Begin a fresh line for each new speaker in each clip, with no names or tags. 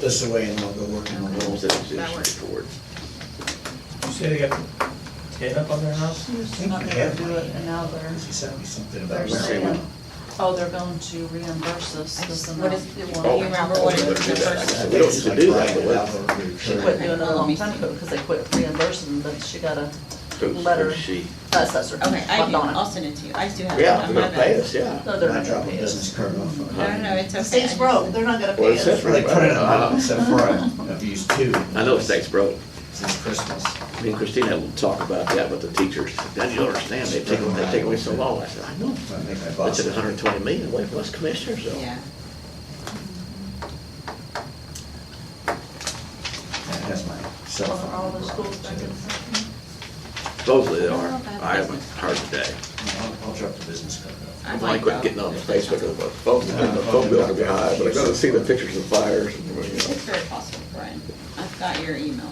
this away and I'll go work on the
Homes
rules.
that are
That works.
straightforward.
You say they got ten up on their house?
I think
Not
you
gonna
have
do
money.
it, and now they're,
He sent me something
they're
about.
We'll see
saying,
what-
oh, they're going to reimburse us
I
this
just-
amount.
what is- do you remember
Oh,
what it
we
was
better do
the
that.
first-
I guess We don't need to do that, but let's-
She quit doing it a long time ago because they quit reimbursing, but she got a
Who's-
letter,
who's she?
assessor.
Okay, I do,
Donna.
I'll send it to you, I do have. it
Yeah,
on
they're
my
gonna pay
bed.
us, yeah.
No, they're
I
not
dropped
gonna
my
pay
business
us.
card off. on
No,
it.
no, no, it's okay.
The state's broke, they're not gonna
Well,
pay
it
us.
says
That's where they put it on,
Uh-huh.
except for I- I've used two.
I know the state's broke.
Since Christmas.
Me and Christina will talk about that with the teachers. Then you understand, they've taken, they've taken away so long. I said, I know.
I make my boss.
That's at hundred and twenty million away from us commissioners though.
Yeah,
That's my cell
Well,
phone.
are all the schools back in
number.
session?
Supposedly they are.
Well, that's
I haven't
business.
heard today.
I'll I'll drop the business card off.
I'd
I
like
quit
to.
getting on Facebook and the phone, the phone bill can be high, but I gotta see the pictures of fires and, you
Is
know.
it very possible, Brian? I've got your emails.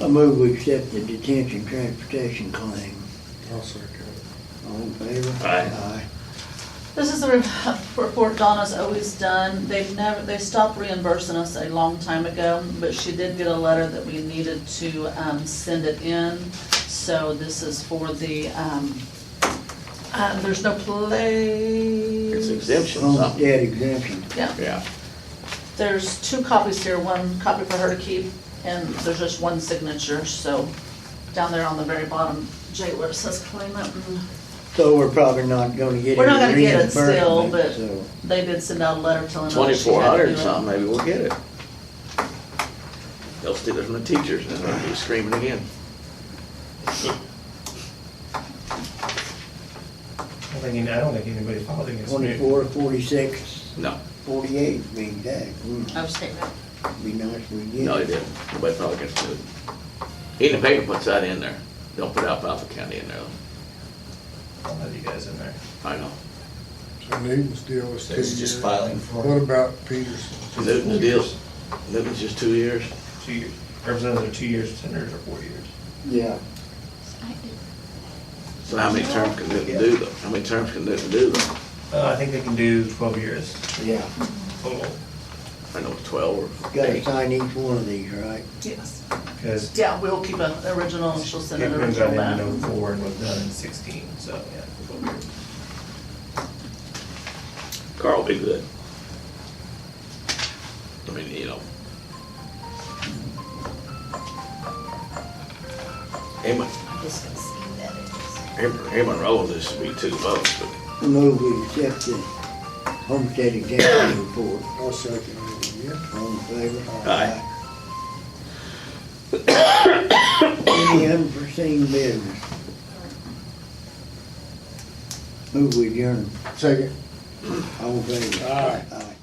I move we accept the detention transportation claim. All in favor?
Aye.
This is the re- report Donna's always done. They've never, they stopped reimbursing us a long time ago, but she did get a letter that we needed to um, send it in. So this is for the, um, uh, there's no
It's
place.
Oh,
exemption, something.
Homestead exemption.
Yeah,
Yeah.
there's two copies here, one copy for her to keep, and there's just one signature, so down there on the very bottom, Jay, where it says claimant, and
So we're probably not gonna get it
We're not gonna get it still, but
reimbursement, so-
they did send out a letter telling us. she had to
Twenty-four hundred
do
and
it.
something, maybe we'll get it. They'll steal it from the teachers and I'll be screaming again.
I don't think, I don't think anybody filed against me.
Twenty-four, forty-six,
No,
forty-eight being taxed. Mm,
Oh, state rep.
Be nice if we get
no, they
it.
didn't. Nobody filed against it. Even the paper puts that in there. Don't put Alfalfa County in there.
I'll have you guys in there.
I know.
So Newton's deal was two
So it's
years.
just filing for it.
What about Peterson?
Newton's deals, Newton's just two years.
Two years, representatives are two years, senators are four years.
Yeah,
So how many terms can Newton do though? How many terms can Newton do though?
Uh, I think they can do twelve years
yeah.
total,
I know it's twelve or
Gotta
eight.
sign each one of these, right?
Yes.
because
Yeah, we'll keep an original, and she'll send an
Pickman's
original
done in
back.
oh-four and was done in sixteen, so, yeah, twelve years.
Carl will be good. I mean, you know. Him,
I'm just gonna see who that is.
him, him and Roland this would be two votes, but
Move we accept the homestead exemption report.
I'll Oh, second it again.
All in favor?
Aye.
Any unforeseen business? Move we adjourn.
Second.
All in favor?
Aye.
Aye.